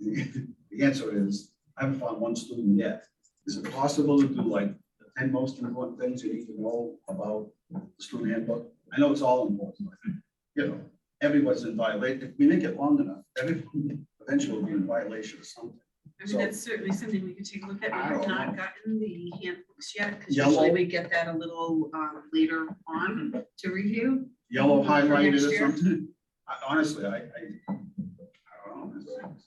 The answer is, I haven't found one student yet. Is it possible to do like the ten most important things you need to know about the student handbook? I know it's all important, but, you know, everyone's in violation. If we make it long enough, everyone eventually will be in violation of something. I mean, that's certainly something we could take a look at. I We have don't not know. gotten the handbooks yet, because Yellow. Mm-hmm. usually we get that a little um, later on to review. Yellow For next highlighted or year? something. I- Honestly, I, I, I don't know.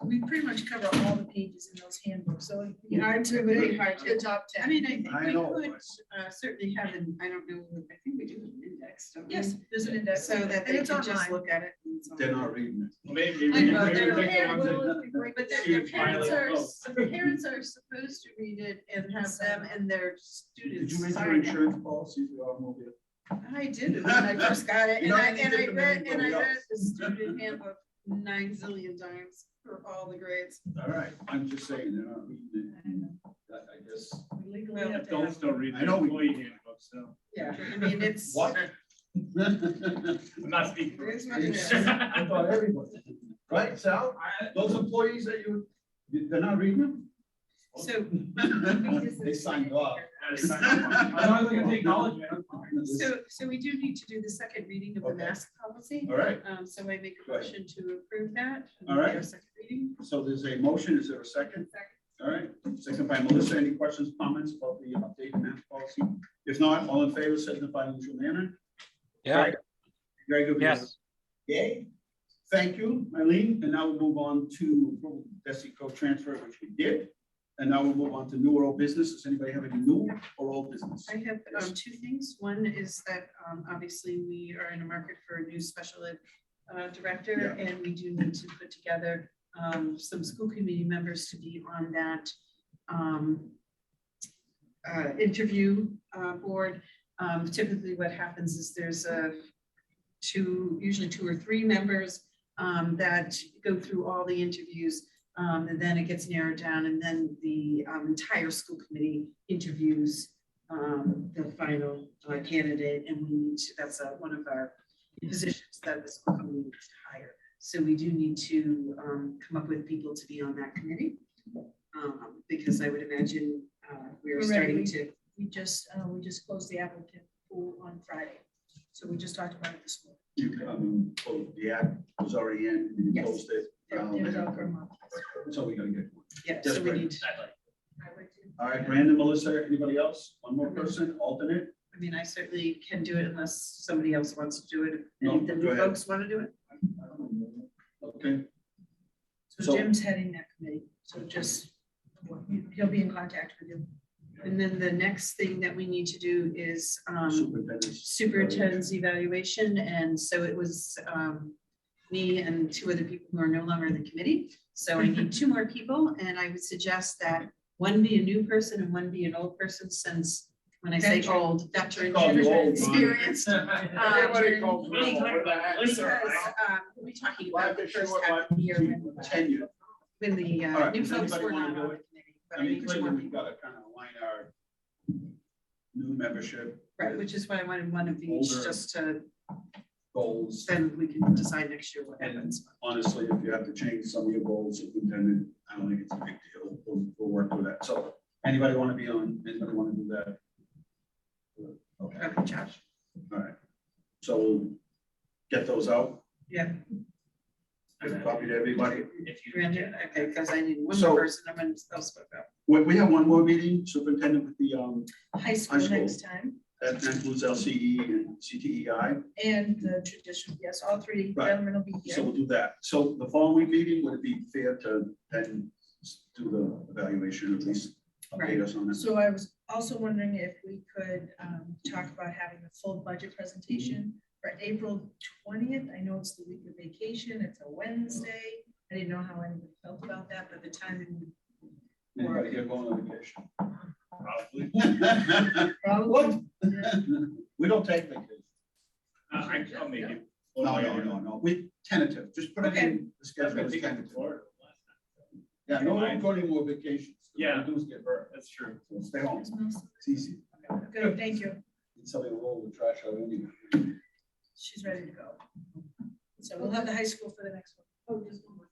We pretty much cover all the pages in those handbooks, so it'd be hard to, really hard to top I ten. mean, I think I we know. could uh, certainly have an, I don't know, I think we do have an index. don't we? Yes, there's an index, So that they it's can just online. look at it. and it's They're online. not reading it. Maybe. we I can know, maybe they're- we can they're have the- willing to break- But then Huge their parents violent are, vote. the parents are supposed to read it and have them and their Did students you make your sign it. insurance policy for your automobile? I did, when I first got it, You know, and I, you and did I them read, to and I everybody read else. the student handbook nine zillion times for all the grades. All right, I'm just saying, they're not reading it. I know. I I guess. We legally Well, have to have- Adults don't read I the know we- employee handbook, so Yeah, I mean, it's. What? I'm not speaking. for It is what it is. I myself. thought everybody, right, Sal? I- Those employees that you, they're not reading So. them? They signed off. I just signed up on it. I'm not looking to acknowledge it. I'm fine. So, so we do need to do the second reading of the Okay. mask policy. All right, Um, so I make a Right. motion to approve that. All right. Our Second reading. so there's a motion, is there a second? All right, second by Melissa, any questions, comments about the updated math policy? If not, all in favor, signify in usual manner. Yeah, Very good. yes, Yay. Thank you, Eileen. And now we'll move on to approval of DesiCo transfer, which we did. And now we'll move on to new or old business. Does anybody have any new or old business? I have um, two things. One is that um, obviously we are in a market for a new special ed uh, director, and we do need to put together um, some school committee members to be on that um, uh, interview uh, board. Um, Typically, what happens is there's a two, usually two or three members um, that go through all the interviews. um, And then it gets narrowed down, and then the um, entire school committee interviews um, the final uh, candidate, and we need to, that's uh, one of our positions that the school committee needs to hire. So we do need to um, come up with people to be on that committee, um, because I would imagine uh, we're starting Already. to, We just, uh, we just closed the applicant pool on Friday, so we just talked about it this morning. You, um, oh, the act was already in, you Yes. closed it. They're- they're out for a month. So we gotta get one. yeah, Yes, so we right. need, I'd like- I would do- All right, Brandon, Melissa, anybody else? One more person, alternate? I mean, I certainly can do it unless somebody else wants to do it. No, Any of the go new ahead. folks want to do it? Okay, So- So Jim's heading that committee, so just, he'll be in contact with you. And then the next thing that we need to do is um, superintendent. superintendent's evaluation, and so it was um, me and two other people who are no longer in the committee. So I need two more people, and I would suggest that one be a new person and one be an old person, since when I say Veteran. old, veteran, Call you old, Ron. experienced. Um, Everybody called me. because, What the heck, Because, sir? um, we'll be talking Why about the they say first what- half of the year when- Tenure. when the All uh, right, new does folks anybody were wanna not do on the it? committee. But I I mean, need two more clearly, we've people, gotta kind of align our new membership right, which is why I wanted one of each, Older. just to, goals. then we can decide next year what And happens. honestly, if you have to change some of your goals, superintendent, I don't think it's a big deal. We'll, we'll work with that. So anybody want to be on, anybody want to do that? Okay, Okay, Josh. all right. So we'll get those out. Yeah. I've copied everybody. If you- Brandon, okay, because I need one So- more person, I'm gonna spell spoke out. We, we have one more meeting, superintendent with the, um, High school High school. next time, that includes LCE E and CTEI. and the tradition, yes, all three Right. gentlemen will be So here. we'll do that. So the following meeting, would it be fair to then do the evaluation, at least Right. update us on this? So I was also wondering if we could um, talk about having a full budget presentation for April twentieth. I know it's the week of vacation, it's a Wednesday. I didn't know how anyone felt about that, but the timing Anybody here going on vacation? Probably. What? probably. We don't take vacation. Uh, I- I'll make it. No, no, no, no, we tentative, just put it in the I've schedule been as taking it to tentative. Florida last time. Yeah, no, I'm going more vacations. Yeah. Do is get hurt, That's true. so stay home, it's easy. Good, thank you. And Somebody will roll the trash out anyway. She's ready to go. So we'll have the high school for the next one. Oh, just one more.